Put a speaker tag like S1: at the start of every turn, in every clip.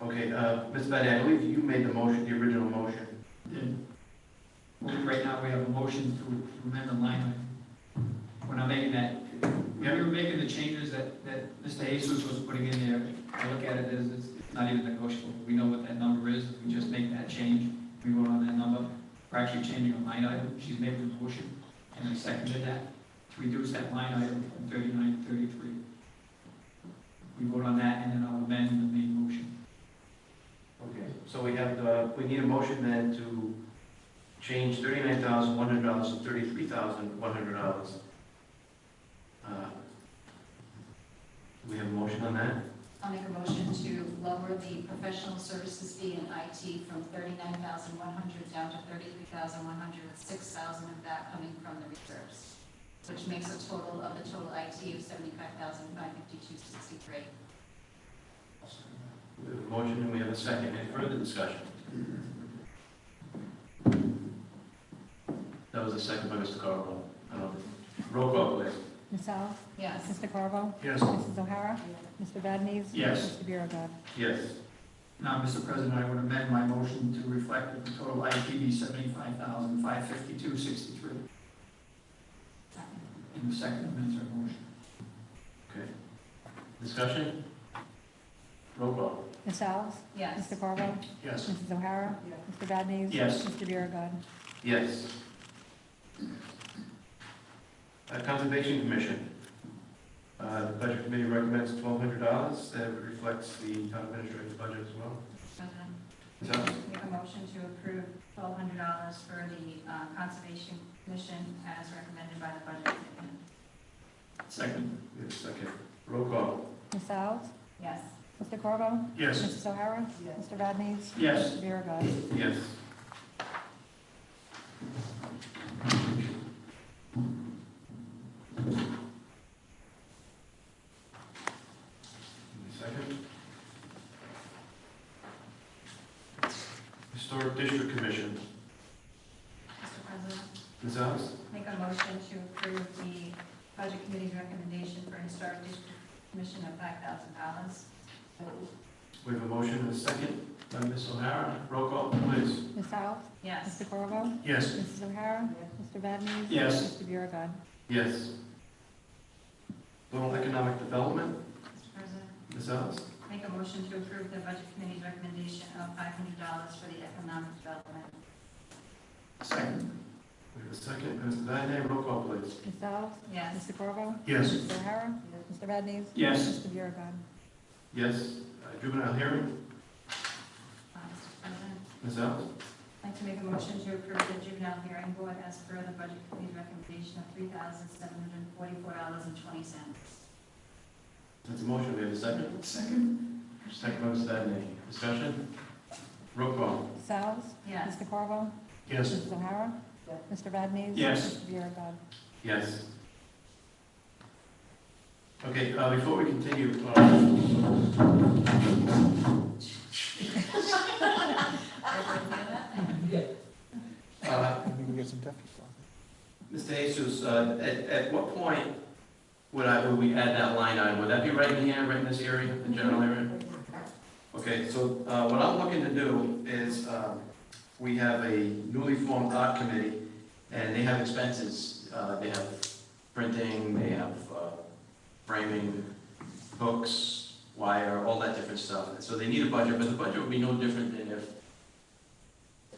S1: uh, Ms. Betty, I believe you made the motion, the original motion.
S2: Then, Right now, we have a motion to amend the line item. When I'm making that, when we were making the changes that, that Mr. Jesus was putting in there, I look at it as it's not even negotiable. We know what that number is, we just make that change, we vote on that number. We're actually changing a line item, she's made the motion, and I seconded that, to reduce that line item from thirty-nine to thirty-three. We vote on that, and then I'll amend the main motion.
S1: Okay. So we have, the we need a motion then to change thirty-nine thousand one hundred dollars to thirty-three thousand one hundred dollars. Uh, We have a motion on that?
S3: I'll make a motion to lower the professional services fee in IT from thirty-nine thousand one hundred down to thirty-three thousand one hundred, with six thousand of that coming from the reserves, which makes a total of the total IT of seventy-five thousand five fifty-two sixty-three.
S1: We have a motion and we have a second. Any further discussion? That was a second by Mr. Carbone. Um, Roll call, please.
S4: Ms. Alves?
S3: Yes.
S4: Mr. Carvo?
S1: Yes.
S4: Mrs. O'Hara? Mr. Badnees?
S2: Yes.
S4: Mr. Biragad.
S1: Yes.
S2: Now, Mr. President, I would amend my motion to reflect that the total IP be seventy-five thousand, five fifty-two, sixty-three. In the second amendment to our motion.
S1: Discussion? Roll call.
S4: Ms. Alves?
S3: Yes.
S4: Mr. Carvo?
S1: Yes.
S4: Mrs. O'Hara? Mr. Badnees?
S2: Yes.
S4: Mr. Biragad.
S1: Yes. Uh, Conservation Commission. Uh, The Budget Committee recommends twelve hundred dollars. That reflects the town administrator's budget as well.
S3: President,
S1: Is that-
S3: Make a motion to approve twelve hundred dollars for the uh, Conservation Commission as recommended by the Budget Committee.
S2: Second.
S1: we have a second. Roll call.
S4: Ms. Alves?
S3: Yes.
S4: Mr. Carvo?
S1: Yes.
S4: Mrs. O'Hara? Mr. Badnees?
S2: Yes.
S4: Mr. Biragad.
S1: Yes. Second. Historic District Commission,
S3: Mr. President.
S1: Ms. Alves?
S3: Make a motion to approve the budget committee's recommendation for historic district commission of five thousand dollars.
S1: We have a motion and a second by Ms. O'Hara. Roll call, please.
S4: Ms. Alves?
S3: Yes.
S4: Mr. Carvo?
S1: Yes.
S4: Mrs. O'Hara? Mr. Badnees?
S2: Yes.
S4: Mr. Biragad.
S1: Yes. Rural Economic Development,
S3: Mr. President,
S1: Ms. Alves?
S3: make a motion to approve the budget committee's recommendation of five hundred dollars for the economic development.
S2: Second.
S1: We have a second, Ms. Vadeney, roll call, please.
S4: Ms. Alves?
S3: Yes.
S4: Mr. Carvo?
S1: Yes.
S4: Mrs. O'Hara? Mr. Badnees?
S2: Yes.
S4: Mr. Biragad.
S1: Yes. Uh, Juvenile hearing,
S3: Uh, Mr. President,
S1: Ms. Alves?
S3: I'd like to make a motion to approve the juvenile hearing board as per the budget committee's recommendation of three thousand seven hundred and forty-four dollars and twenty cents.
S1: That's a motion, we have a second. Second. Second by Ms. Vadeney. Discussion? Roll call.
S4: Ms. Alves?
S3: Yes.
S4: Mr. Carvo? Mrs. O'Hara? Mr. Badnees?
S2: Yes.
S4: Mr. Biragad.
S1: Yes. Okay, uh, before we continue, uh,
S3: Everyone hear that?
S1: uh,
S5: I think we get some deaf people.
S1: Mr. Jesus, uh, at, at what point would I, would we add that line item? Would that be right in here, right in this area, the general area? Okay, so, uh, what I'm looking to do is, um, we have a newly formed art committee, and they have expenses. Uh, they have printing, they have, uh, framing, books, wire, all that different stuff. And so they need a budget, but the budget would be no different than if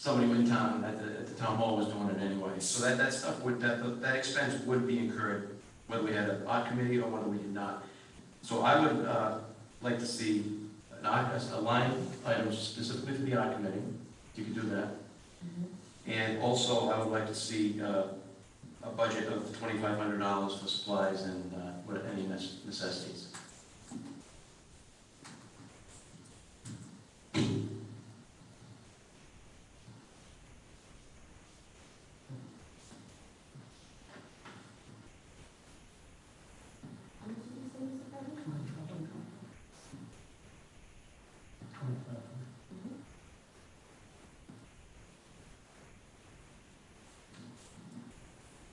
S1: somebody in town, at the, at the town hall was doing it anyway. So that, that stuff would, that, that expense would be incurred, whether we had an art committee or whether we did not. So I would, uh, like to see an art, a line item specifically for the art committee, you could do that. And also, I would like to see, uh, a budget of twenty-five hundred dollars for supplies and, uh, what, any necess- necessities.